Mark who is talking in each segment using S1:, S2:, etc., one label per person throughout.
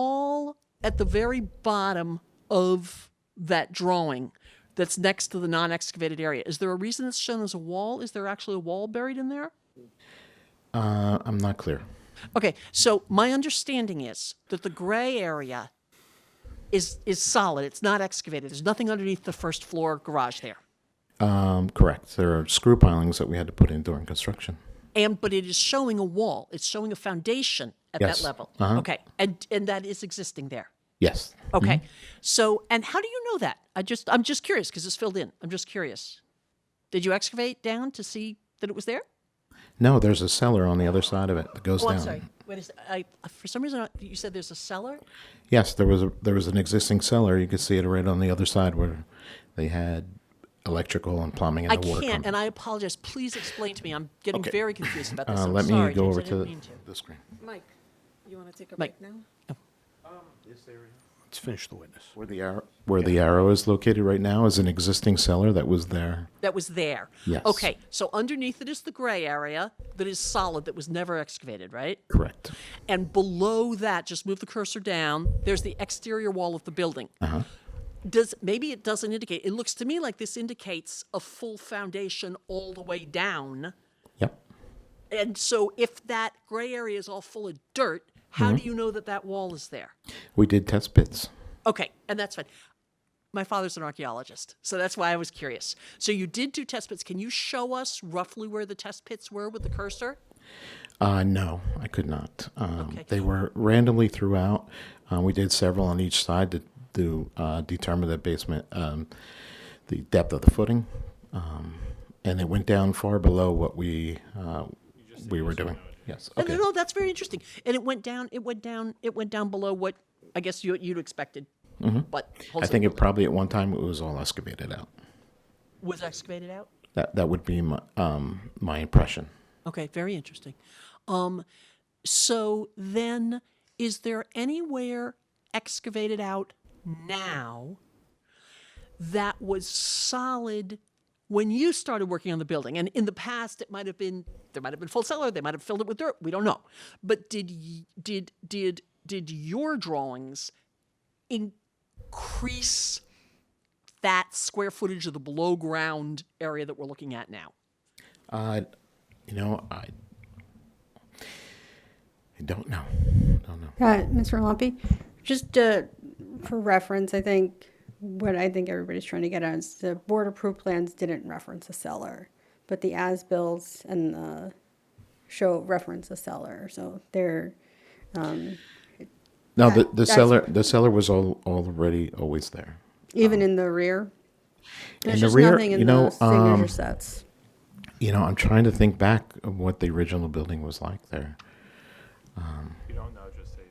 S1: wall at the very bottom of that drawing that's next to the non-excavated area. Is there a reason it's shown as a wall? Is there actually a wall buried in there?
S2: Uh, I'm not clear.
S1: Okay, so my understanding is that the gray area is is solid. It's not excavated. There's nothing underneath the first floor garage there.
S2: Um, correct. There are screw pilings that we had to put in during construction.
S1: And but it is showing a wall. It's showing a foundation at
S2: Yes.
S1: that level.
S2: Uh-huh.
S1: Okay. And and that is existing there.
S2: Yes.
S1: Okay. So, and how do you know that? I just, I'm just curious because it's filled in. I'm just curious. Did you excavate down to see that it was there?
S2: No, there's a cellar on the other side of it that goes
S1: Oh,
S2: down.
S1: I'm sorry. Wait a sec- I, for some reason, I- you said there's a cellar.
S2: Yes, there was a, there was an existing cellar. You could see it right on the other side where they had electrical and plumbing and
S1: I
S2: the water.
S1: can't,
S2: company.
S1: and I apologize. Please explain to me. I'm getting
S2: Okay.
S1: very confused about this.
S2: uh,
S1: I'm
S2: let
S1: sorry,
S2: me go
S1: James.
S2: over
S1: I didn't
S2: to
S1: mean to.
S2: the screen.
S3: Mike, you want to take a
S1: Mike.
S3: break now?
S4: Let's finish the witness.
S2: Where the arrow, where the arrow is located right now is an existing cellar that was there.
S1: That was there.
S2: Yes.
S1: Okay. So underneath it is the gray area that is solid that was never excavated, right?
S2: Correct.
S1: And below that, just move the cursor down. There's the exterior wall of the building. Does maybe it doesn't indicate? It looks to me like this indicates a full foundation all the way down.
S2: Yep.
S1: And so, if that gray area is all full of dirt, how do you know that that wall is there?
S2: We did test pits.
S1: Okay, and that's fine. My father's an archaeologist, so that's why I was curious. So you did do test pits. Can you show us roughly where the test pits were with the cursor?
S2: Uh, no, I could not. Um,
S1: Okay.
S2: They were randomly throughout. Uh, we did several on each side to, to uh, determine the basement, um, the depth of the footing, um, and it went down far below what we uh, we were doing. Yes.
S1: And
S2: Okay.
S1: no, that's very interesting. And it went down. It went down. It went down below what I guess you you'd expected. But
S2: Mm-hmm. I think it probably at one time it was all excavated out.
S1: was excavated out.
S2: That that would be my um, my impression.
S1: Okay, very interesting. Um, so then, is there anywhere excavated out now that was solid when you started working on the building? And in the past, it might have been there might have been full cellar, they might have filled it with dirt. We don't know. But did y- did did did your drawings increase that square footage of the below ground area that we're looking at now?
S2: Uh, you know, I I don't know. Don't know.
S3: Uh, Mr. Lumpy, just uh, for reference, I think what I think everybody's trying to get at is the board approved plans didn't reference a cellar, but the as bills and the show reference a cellar, so they're.
S2: No, the,
S3: That-
S2: the
S3: that's-
S2: cellar the cellar was all already always there.
S3: Even in the rear?
S2: Oh.
S3: There's
S2: the
S3: just
S2: rear,
S3: nothing in
S2: you know,
S3: the signature
S2: um,
S3: sets.
S2: You know, I'm trying to think back of what the original building was like there.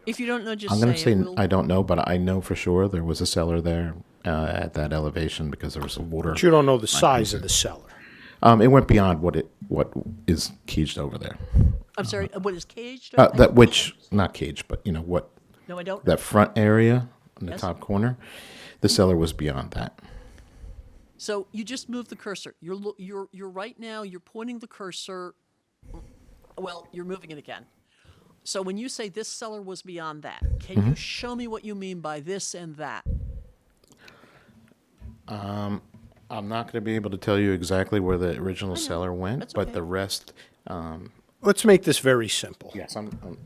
S1: If you don't know, just
S2: I'm going
S1: say,
S2: to
S1: it.
S2: say
S1: We'll-
S2: I don't know, but I know for sure there was a cellar there uh, at that elevation because there was a water.
S4: But you don't know the size of the cellar.
S2: Um, it went beyond what it what is caged over there.
S1: I'm sorry. uh, What is caged?
S2: Uh,
S1: I-
S2: that which not caged, but you know what
S1: no, I don't.
S2: that front area in the
S1: Yes.
S2: top corner, the cellar was beyond that.
S1: so you just move the cursor. You're lo- you're you're right now. You're pointing the cursor. Well, you're moving it again. So when you say this cellar was beyond that, can
S2: Mm-hmm.
S1: you show me what you mean by this and that?
S2: I'm not going to be able to tell you exactly where the original cellar went,
S1: That's
S2: but
S1: okay.
S2: the rest.
S4: Let's make this very simple.
S2: Yes, I'm, I'm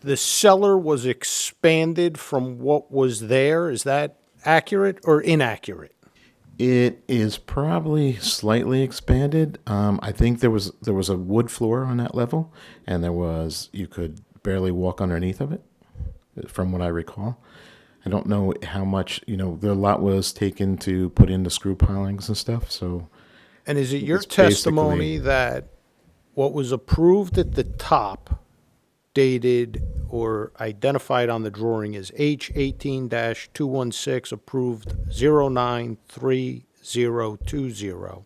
S4: The cellar was expanded from what was there. Is that accurate or inaccurate?
S2: It is probably slightly expanded. Um, I think there was there was a wood floor on that level, and there was you could barely walk underneath of it, from what I recall. I don't know how much you know. The lot was taken to put in the screw pilings and stuff. So
S4: And is it your
S2: It's basically-
S4: testimony that what was approved at the top dated or identified on the drawing is H eighteen two one six approved zero nine three zero two zero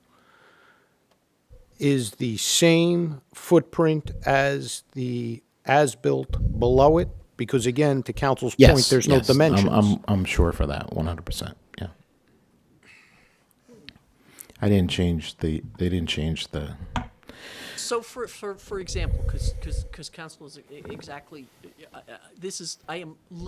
S4: is the same footprint as the as-built below it? Because again, to council's point, there's no
S2: yes, I'm-
S4: dimensions.
S2: I'm, I'm sure for that, one hundred percent. Yeah. I didn't change the. They didn't change the
S1: So for, e, for, for example, because, because, because council is e- exactly, uh, uh, this is, I am